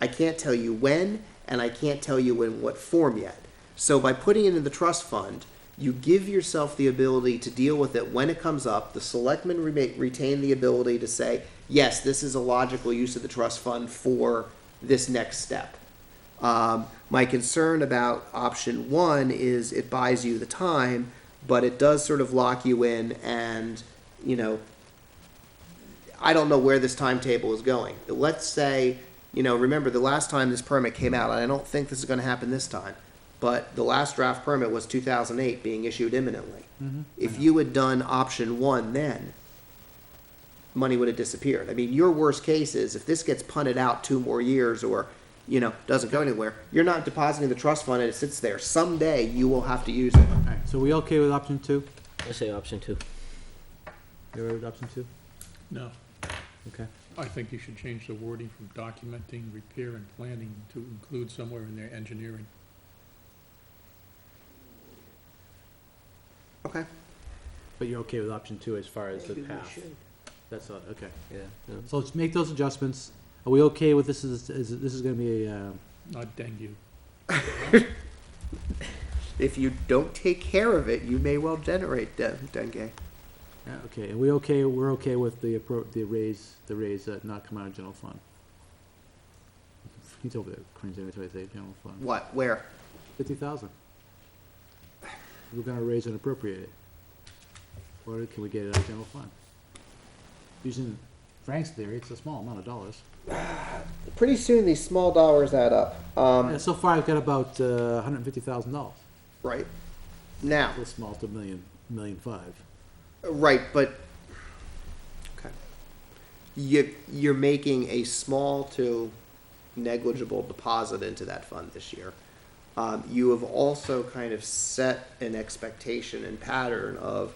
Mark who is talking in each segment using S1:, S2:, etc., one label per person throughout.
S1: I can't tell you when, and I can't tell you in what form yet. So by putting it in the trust fund, you give yourself the ability to deal with it when it comes up. The selectmen rema- retain the ability to say, yes, this is a logical use of the trust fund for this next step. Um, my concern about option one is it buys you the time, but it does sort of lock you in and, you know, I don't know where this timetable is going. Let's say, you know, remember the last time this permit came out, and I don't think this is gonna happen this time, but the last draft permit was two thousand eight, being issued imminently. If you had done option one then, money would have disappeared. I mean, your worst case is if this gets punted out two more years or, you know, doesn't go anywhere, you're not depositing the trust fund and it sits there. Someday you will have to use it.
S2: Alright, so we okay with option two?
S3: I say option two.
S2: You all right with option two?
S4: No,
S2: Okay.
S4: I think you should change the wording from documenting, repair, and planning to include somewhere in there engineering.
S1: Okay.
S2: But you're okay with option two as far as the path? That's all, okay.
S3: Yeah. no.
S2: So let's make those adjustments. Are we okay with this is, is, this is gonna be a, um,
S4: Not dengue.
S1: If you don't take care of it, you may well generate de- dengue.
S2: yeah, okay, and we okay, we're okay with the appro, the raise, the raise that not come out of general fund? He's over there cringing every time I say general fund.
S1: What? Where?
S2: Fifty thousand. We're gonna raise and appropriate it. Or can we get it out of general fund? Using Frank's theory, it's a small amount of dollars.
S1: Pretty soon these small dollars add up.
S2: Yeah,
S1: Um,
S2: so far I've got about uh, hundred and fifty thousand dollars.
S1: right. Now,
S2: Little small to million, million five.
S1: right, but okay. You you're making a small to negligible deposit into that fund this year. Um, you have also kind of set an expectation and pattern of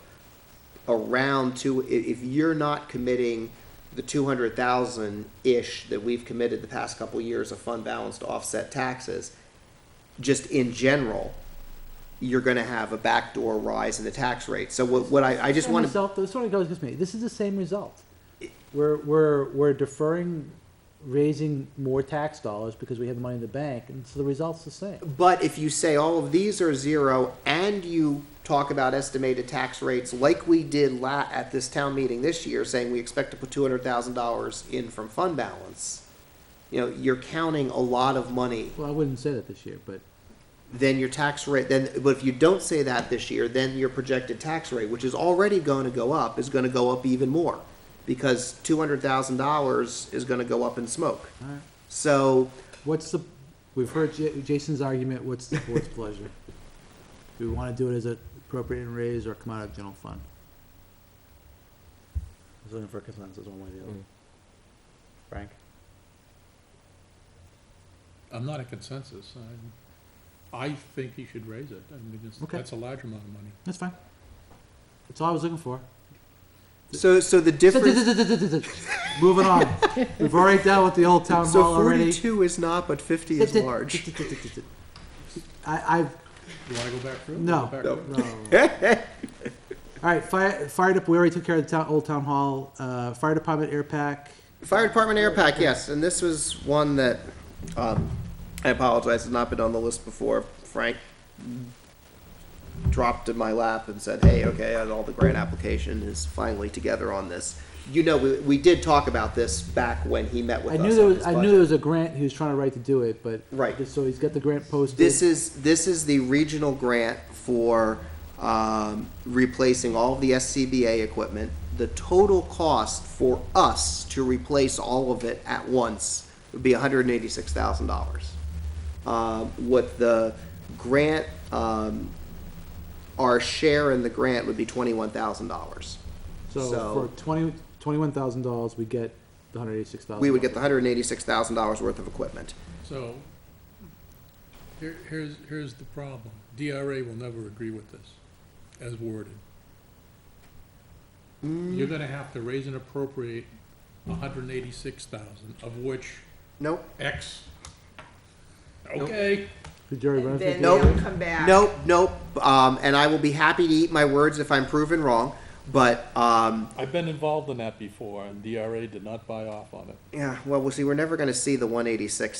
S1: around two. i- If you're not committing the two hundred thousand ish that we've committed the past couple years of fund balance to offset taxes, just in general, you're going to have a backdoor rise in the tax rate. So what, what I, I just
S2: Same
S1: want to
S2: Result, this sort of goes against me. This is the same result. We're, we're, we're deferring raising more tax dollars because we have the money in the bank, and so the result's the same.
S1: But if you say all of these are zero and you talk about estimated tax rates like we did la- at this town meeting this year, saying we expect to put two hundred thousand dollars in from fund balance, you know, you're counting a lot of money.
S2: Well, I wouldn't say that this year, but
S1: Then your tax rate, then, but if you don't say that this year, then your projected tax rate, which is already going to go up, is going to go up even more. Because two hundred thousand dollars is going to go up in smoke.
S2: Alright.
S1: So
S2: what's the, we've heard Ja- Jason's argument, what's the board's pleasure? Do we wanna do it as an appropriate and raise or come out of general fund? I was looking for consensus one way or the other.
S3: Mm.
S2: Frank?
S4: I'm not a consensus. I'm, I think you should raise it. I mean, it's,
S2: Okay.
S4: that's a large amount of money.
S2: That's fine. That's all I was looking for.
S1: so so the difference.
S2: Moving on. We've already dealt with the old town
S1: So
S2: hall already.
S1: forty-two is not, but fifty is large.
S2: I, I've,
S4: You wanna go back through? it?
S2: No.
S4: Go back
S1: No.
S4: through it.
S2: no. All right, fire, fire up, we already took care of the town, old town hall, uh, fire department air pack.
S1: Fire Department Air Pack, yes, and this was one that, um, I apologize, has not been on the list before. Frank dropped in my lap and said, hey, okay, and all the grant application is finally together on this. You know, we, we did talk about this back when he met with
S2: I
S1: us
S2: knew there
S1: on
S2: was,
S1: his
S2: I knew
S1: budget.
S2: there was a grant he was trying to write to do it, but.
S1: Right.
S2: So he's got the grant posted.
S1: This is, this is the regional grant for, um, replacing all of the SCBA equipment. The total cost for us to replace all of it at once would be hundred and eighty-six thousand dollars. Um, what the grant, um, our share in the grant would be twenty-one thousand dollars.
S2: So for twenty, twenty-one thousand dollars, we get the hundred eighty-six thousand.
S1: We would get the hundred and eighty-six thousand dollars worth of equipment.
S4: So, here, here's, here's the problem. DRA will never agree with this, as worded. You're
S2: Mm.
S4: gonna have to raise and appropriate hundred and eighty-six thousand, of which
S1: Nope,
S4: X. Okay.
S2: Did Jerry
S5: And
S2: Renner
S5: then
S2: think-
S1: Nope.
S5: they'll come back.
S1: Nope, nope. Um, and I will be happy to eat my words if I'm proven wrong. But um,
S4: I've been involved in that before, and DRA did not buy off on it.
S1: yeah, well, we'll see. We're never going to see the 186